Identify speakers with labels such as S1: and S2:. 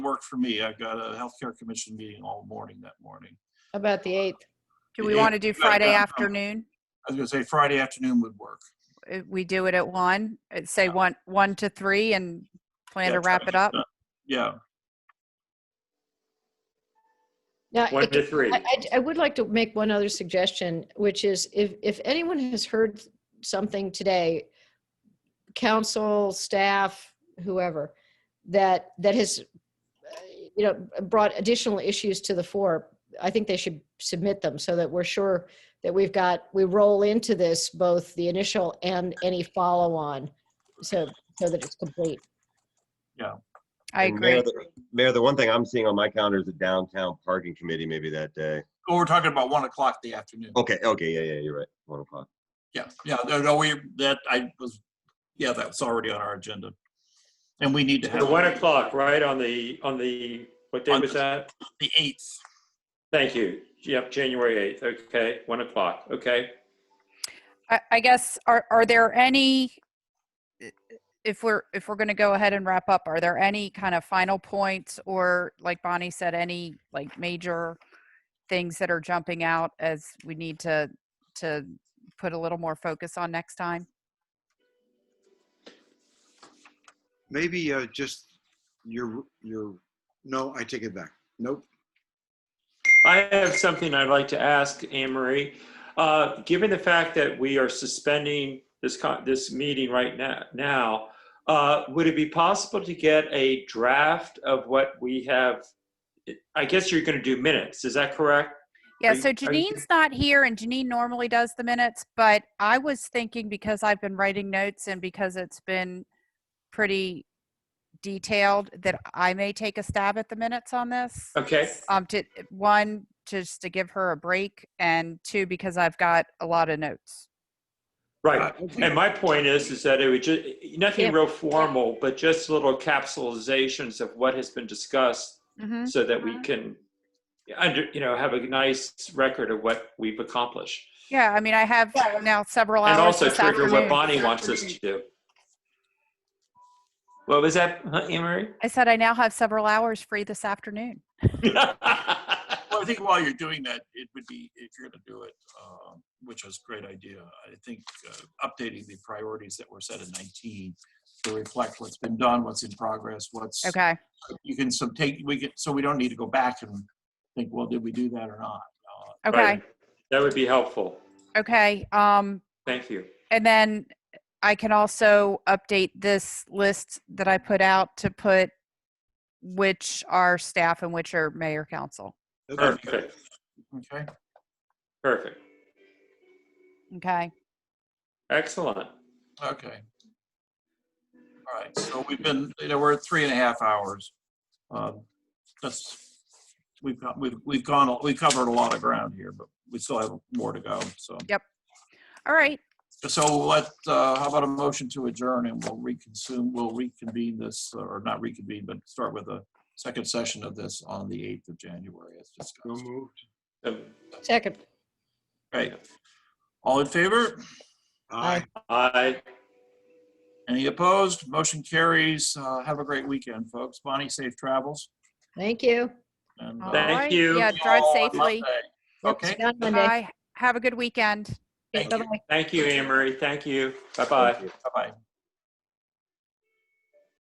S1: work for me. I've got a healthcare commission meeting all morning that morning.
S2: How About the eighth.
S3: Do we
S1: Yeah,
S3: want to do
S1: got it
S3: Friday
S1: down.
S3: afternoon?
S1: I was gonna say Friday afternoon would work.
S3: Uh, We do it at one, uh, say one, one to three and plan
S1: Yeah,
S3: to
S1: try
S3: wrap
S1: to
S3: it
S1: get
S3: up?
S1: done. Yeah,
S2: Now,
S4: One
S2: it-
S4: to three.
S2: I, I- I would like to make one other suggestion, which is if, if anyone has heard something today, council, staff, whoever, that, that has, uh, you know, brought additional issues to the fore, I think they should submit them so that we're sure that we've got, we roll into this, both the initial and any follow-on, so, so that it's complete.
S3: I
S5: And Mayor,
S3: agree.
S5: the- Mayor, the one thing I'm seeing on my calendar is the downtown parking committee maybe that day.
S1: Well, we're talking about one o'clock the afternoon.
S5: Okay, okay, yeah, yeah, you're right. One o'clock.
S1: Yeah, yeah, no, no, we, that, I was, yeah, that's already on our agenda. And we need to
S4: The
S1: have
S4: one
S1: it
S4: o'clock, right, on the, on the, what day
S1: On
S4: was
S1: the-
S4: that?
S1: the eighth.
S4: Thank you. Yep, January eighth, okay, one o'clock, okay.
S3: I, I guess, are, are there any, if we're, if we're going to go ahead and wrap up, are there any kind of final points or like Bonnie said, any like major things that are jumping out as we need to, to put a little more focus on next time?
S6: Maybe uh, just your, your, no, I take it back. Nope.
S4: I have something I'd like to ask Anne Marie. Uh, Given the fact that we are suspending this, con- this meeting right na- now, uh, would it be possible to get a draft of what we have? I guess you're going to do minutes, is that correct?
S3: Yeah,
S4: Are you-
S3: so
S4: are you-
S3: Janine's not here and Janine normally does the minutes, but I was thinking because I've been writing notes and because it's been pretty detailed that I may take a stab at the minutes on this.
S4: Okay,
S3: Um, to, one, just to give her a break and two, because I've got a lot of notes.
S4: right.
S1: Uh,
S4: And my point is, is that it would just, nothing
S2: Yeah.
S4: real formal, but just little capsulizations of what has been discussed
S3: Mm-hmm.
S4: so that we can, under, you know, have a nice record of what we've accomplished.
S3: Yeah, I mean, I have now several hours
S4: And also
S3: this
S4: trigger what
S3: afternoon.
S4: Bonnie wants us to do. What was that, huh, Anne
S3: I said I now have several hours free this afternoon.
S4: Marie?
S1: Well, I think while you're doing that, it would be, if you're gonna do it, um, which is a great idea, I think uh, updating the priorities that were set in nineteen to reflect what's been done, what's in progress, what's
S3: Okay.
S1: you can some take, we get, so we don't need to go back and think, well, did we do that or not?
S3: Okay.
S4: Right. That would be helpful.
S3: Okay. Um,
S4: Thank you.
S3: And then I can also update this list that I put out to put which are staff and which are mayor council.
S4: Perfect,
S1: Okay,
S4: perfect.
S3: Okay.
S4: Excellent.
S1: okay. All right, so we've been, you know, we're at three and a half hours. Um, That's, we've got, we've, we've gone, we covered a lot of ground here, but we still have more to go, so.
S3: All right.
S1: So let, uh, how about a motion to adjourn and we'll reconsume, we'll reconvene this, or not reconvene, but start with a second session of this on the 8th of January as
S6: No
S1: discussed.
S6: moved.
S4: Um,
S2: Second.
S1: Right. All in favor?
S6: Aye.
S4: Aye.
S1: Any opposed? Motion carries. Uh, Have a great weekend, folks. Bonnie, safe travels.
S2: Thank you.
S1: and,
S3: All
S1: uh,
S4: Thank
S3: right.
S4: you.
S3: Yeah,
S1: see
S3: drive
S1: all on Monday.
S3: safely.
S1: Okay.
S2: Down Monday.
S3: Bye. Have a good weekend.
S1: Thank you.
S2: Bye-bye.
S4: Thank you, Anne Marie. Thank you. Bye-bye.
S1: Bye-bye.